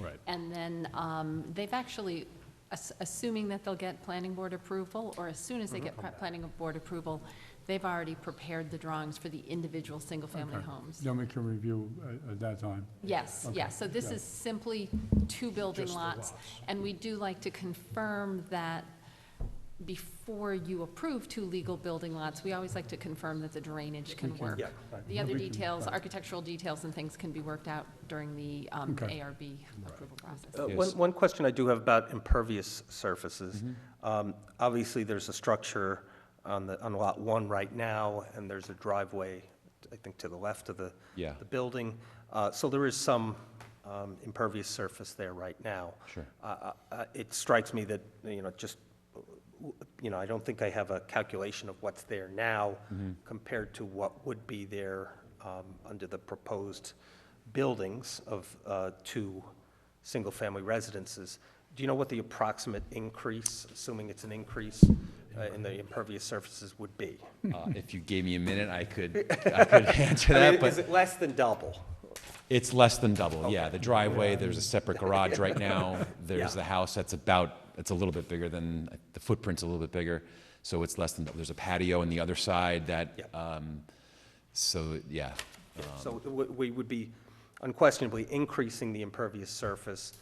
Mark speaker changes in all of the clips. Speaker 1: Right.
Speaker 2: And then um, they've actually, ass- assuming that they'll get planning board approval, or as soon as
Speaker 3: Mm-hmm.
Speaker 2: they get pla- planning board approval, they've already prepared the drawings for the individual single-family
Speaker 3: Okay.
Speaker 2: homes.
Speaker 3: Then we can review uh, at- at that time.
Speaker 2: Yes,
Speaker 3: Okay,
Speaker 2: yes, so this
Speaker 3: yeah.
Speaker 2: is simply two building
Speaker 1: Just the
Speaker 2: lots.
Speaker 1: lots.
Speaker 2: And we do like to confirm that before you approve two legal building lots, we always like to confirm that the drainage can
Speaker 3: can-
Speaker 2: work.
Speaker 1: Yeah,
Speaker 3: right.
Speaker 2: The other
Speaker 3: We can-
Speaker 2: details,
Speaker 3: right.
Speaker 2: architectural details and things can be worked out during the um,
Speaker 3: Okay.
Speaker 2: ARB approval process.
Speaker 4: Uh, One,
Speaker 1: Yes.
Speaker 4: one question I do have about impervious surfaces. Um, Obviously, there's a structure on the, on Lot 1 right now, and there's a driveway, I think, to the left of the,
Speaker 1: Yeah.
Speaker 4: the building. Uh, So there is some um, impervious surface there right now.
Speaker 1: Sure.
Speaker 4: Uh, uh, uh, It strikes me that, you know, just, you know, I don't think I have a calculation of what's there now
Speaker 1: Mm-hmm.
Speaker 4: compared to what would be there um, under the proposed buildings of uh, two single-family residences. Do you know what the approximate increase, assuming it's an increase uh, in the impervious surfaces would be?
Speaker 1: Uh, If you gave me a minute, I could, I could answer
Speaker 4: I
Speaker 1: that,
Speaker 4: mean, is
Speaker 1: but
Speaker 4: it less than double?
Speaker 1: it's less than double, yeah. The driveway, there's a separate garage right now. There's
Speaker 4: Yeah.
Speaker 1: the house that's about, it's a little bit bigger than, the footprint's a little bit bigger, so it's less than double. There's a patio on the other side that,
Speaker 4: Yep.
Speaker 1: um, so, yeah.
Speaker 4: So w- we would be unquestionably increasing the impervious surface,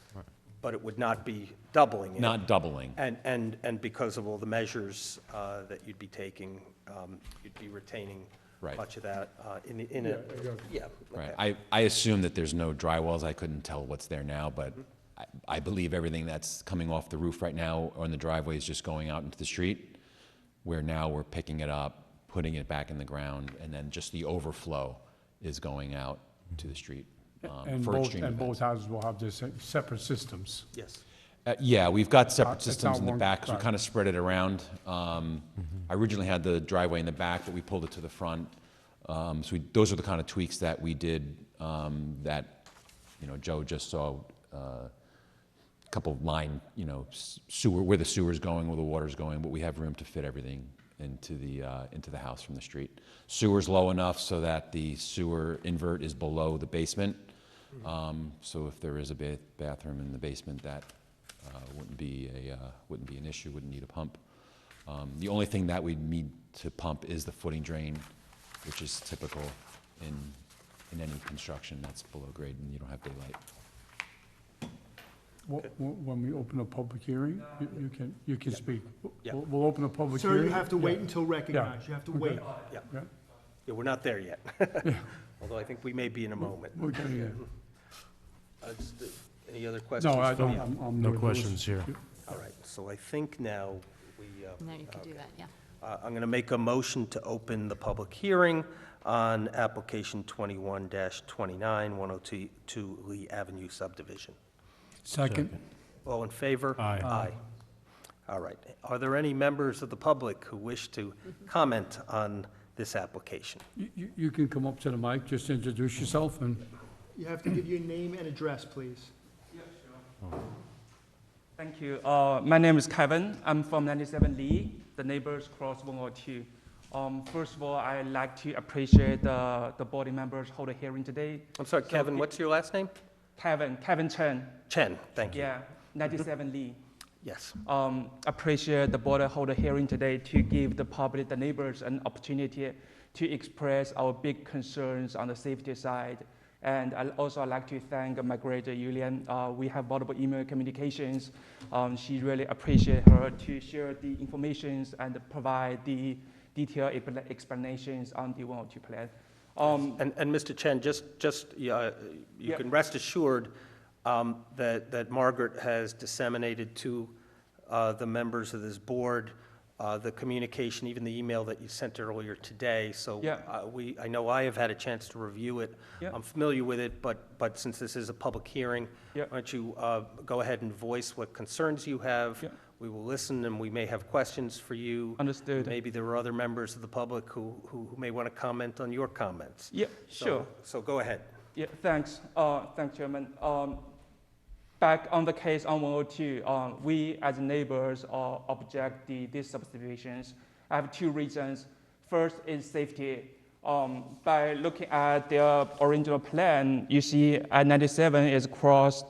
Speaker 4: but it would not be doubling it.
Speaker 1: Not doubling,
Speaker 4: And, and, and because of all the measures uh, that you'd be taking, um, you'd be retaining
Speaker 1: Right.
Speaker 4: much of that uh, in, the- in a, yeah.
Speaker 1: right.
Speaker 4: okay.
Speaker 1: I, I assume that there's no drywells. I couldn't tell what's there now, but
Speaker 3: Mm-hmm.
Speaker 1: I, I believe everything that's coming off the roof right now on the driveway is just going out into the street, where now we're picking it up, putting it back in the ground, and then just the overflow is going out to the street um,
Speaker 3: Mm-hmm. And
Speaker 1: for
Speaker 3: both,
Speaker 1: extreme
Speaker 3: and both
Speaker 1: events.
Speaker 3: houses will have their se- separate systems.
Speaker 4: Yes.
Speaker 1: Uh, Yeah, we've got separate
Speaker 3: It's not- it's
Speaker 1: systems in the
Speaker 3: not
Speaker 1: back, 'cause we
Speaker 3: one-
Speaker 1: kind of spread it around. Um, I originally had the driveway in the back, but we pulled it to the front. Um, So we- those are the kind of tweaks that we did um, that, you know, Joe just saw, uh, a couple of line, you know, s- sewer, where the sewer's going, where the water's going, but we have room to fit everything into the, uh, into the house from the street. Sewer's low enough so that the sewer invert is below the basement. Um, So if there is a ba- bathroom in the basement, that uh, wouldn't be a, uh, wouldn't be an issue, wouldn't need a pump. Um, The only thing that we'd need to pump is the footing drain, which is typical in, in any construction that's below grade and you don't have daylight.
Speaker 3: Wh- wh- When we open a public hearing, you- you can, you can speak.
Speaker 4: Yeah.
Speaker 3: We'll we'll open a public
Speaker 5: Sir,
Speaker 3: hearing.
Speaker 5: you have to
Speaker 3: Yeah.
Speaker 5: wait until recognized, you have to wait.
Speaker 4: Yeah,
Speaker 3: Yeah,
Speaker 4: yeah, we're not there yet. Although I think we may be in a moment.
Speaker 3: we're getting there.
Speaker 4: Uh, s- th- Any other questions?
Speaker 3: No, I
Speaker 4: from
Speaker 3: don't,
Speaker 4: you?
Speaker 3: I'm- I'm.
Speaker 6: No
Speaker 3: there.
Speaker 6: questions here.
Speaker 4: All right, so I think now we. uh,
Speaker 2: Now you can do that, yeah.
Speaker 4: Uh, I'm going to make a motion to open the public hearing on application 21-29, 102 Lee Avenue subdivision.
Speaker 3: Second,
Speaker 4: All in favor?
Speaker 6: Aye.
Speaker 4: Aye. All right. Are there any members of the public who wish to comment on this application?
Speaker 3: you- you, you can come up to the mic, just introduce yourself and.
Speaker 5: You have to give your name and address, please.
Speaker 7: Thank you. Uh, my name is Kevin. I'm from 97 Lee, the neighbors cross 102. Um, first of all, I'd like to appreciate uh, the board members hold a hearing today.
Speaker 4: I'm sorry, Kevin, what's your last name?
Speaker 7: Kevin, Kevin Chen,
Speaker 4: Chen, thank you.
Speaker 7: yeah, 97 Lee.
Speaker 4: Yes.
Speaker 7: Um, appreciate the board hold a hearing today to give the public, the neighbors, an opportunity to express our big concerns on the safety side. And I also I'd like to thank my grader Yulian. Uh, we have multiple email communications. Um, she really appreciate her to share the informations and provide the detailed expla- explanations on the 102 plan. Um,
Speaker 4: And, and Mr. Chen, just, just, uh, you
Speaker 7: Yeah.
Speaker 4: can rest assured um, that, that Margaret has disseminated to uh, the members of this board uh, the communication, even the email that you sent earlier today. So
Speaker 7: Yeah.
Speaker 4: uh, we, I know I have had a chance to review it.
Speaker 7: Yeah.
Speaker 4: I'm familiar with it, but, but since this is a public hearing,
Speaker 7: Yeah.
Speaker 4: why don't you uh, go ahead and voice what concerns you have?
Speaker 7: Yeah.
Speaker 4: We will listen, and we may have questions for you.
Speaker 7: Understood.
Speaker 4: Maybe there are other members of the public who, who who may want to comment on your comments.
Speaker 7: yeah,
Speaker 4: So-
Speaker 7: sure.
Speaker 4: So go ahead.
Speaker 7: Yeah, thanks. Uh, Thanks, Chairman. Um, Back on the case on 102, um, we as neighbors uh, object the these subdivisions. I have two reasons. First is safety. Um, By looking at the original plan, you see I-97 uh, is crossed